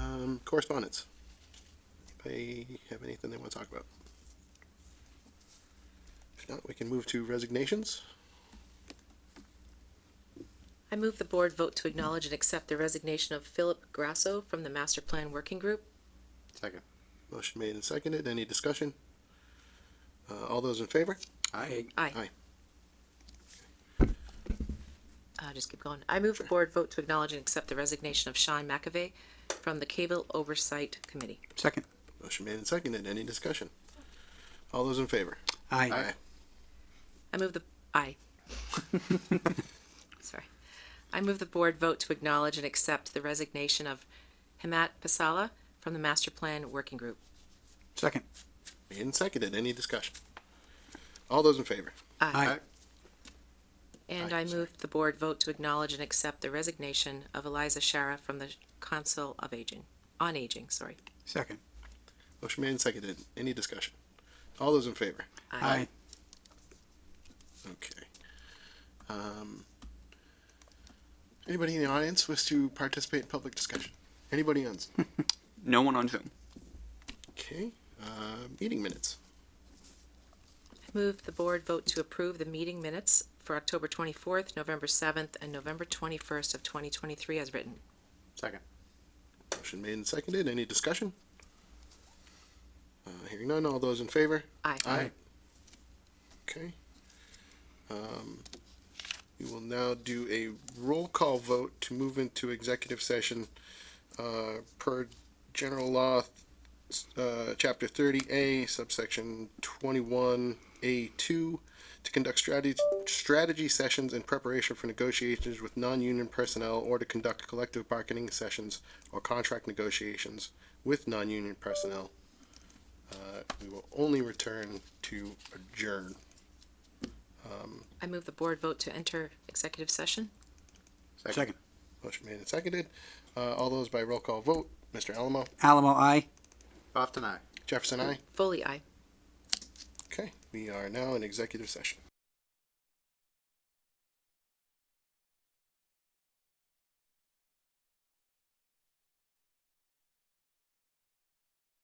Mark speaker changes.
Speaker 1: Um, correspondence. Anybody have anything they want to talk about? If not, we can move to resignations.
Speaker 2: I move the board vote to acknowledge and accept the resignation of Philip Grasso from the Master Plan Working Group.
Speaker 3: Second.
Speaker 1: Motion made and seconded. Any discussion? Uh, all those in favor?
Speaker 3: I
Speaker 1: Aye.
Speaker 2: Aye. Uh, just keep going. I move the board vote to acknowledge and accept the resignation of Sean McAvey from the Cable Oversight Committee.
Speaker 3: Second.
Speaker 1: Motion made and seconded. Any discussion? All those in favor?
Speaker 3: I
Speaker 2: I move the, aye. Sorry. I move the board vote to acknowledge and accept the resignation of Hamat Pasala from the Master Plan Working Group.
Speaker 3: Second.
Speaker 1: Made and seconded. Any discussion? All those in favor?
Speaker 3: I
Speaker 2: And
Speaker 1: Aye,
Speaker 2: I move the board vote to acknowledge and accept the resignation of Eliza Shara from the Council of Aging, on Aging, sorry.
Speaker 3: Second.
Speaker 1: Motion made and seconded. Any discussion? All those in favor?
Speaker 3: I
Speaker 1: Okay. Um, anybody in the audience wish to participate in public discussion? Anybody on? Zoom?
Speaker 4: No one on Zoom.
Speaker 1: Okay. Uh, meeting minutes.
Speaker 2: Move the board vote to approve the meeting minutes for October 24th, November 7th, and November 21st of 2023 as written.
Speaker 3: Second.
Speaker 1: Motion made and seconded. Any discussion? Uh, hearing none. All those in favor?
Speaker 2: Aye.
Speaker 1: Okay. Um, we will now do a roll call vote to move into executive session, uh, per general law, uh, chapter thirty A subsection twenty-one A two, to conduct strategy, strategy sessions in preparation for negotiations with non-union personnel or to conduct collective bargaining sessions or contract negotiations with non-union personnel. Uh, we will only return to adjourn. Um,
Speaker 2: I move the board vote to enter executive session.
Speaker 3: Second.
Speaker 1: Motion made and seconded. Uh, all those by roll call vote. Mr. Alamo,
Speaker 3: Alamo, I.
Speaker 1: Jefferson, I.
Speaker 2: Foley, aye.
Speaker 1: Okay, we are now in executive session.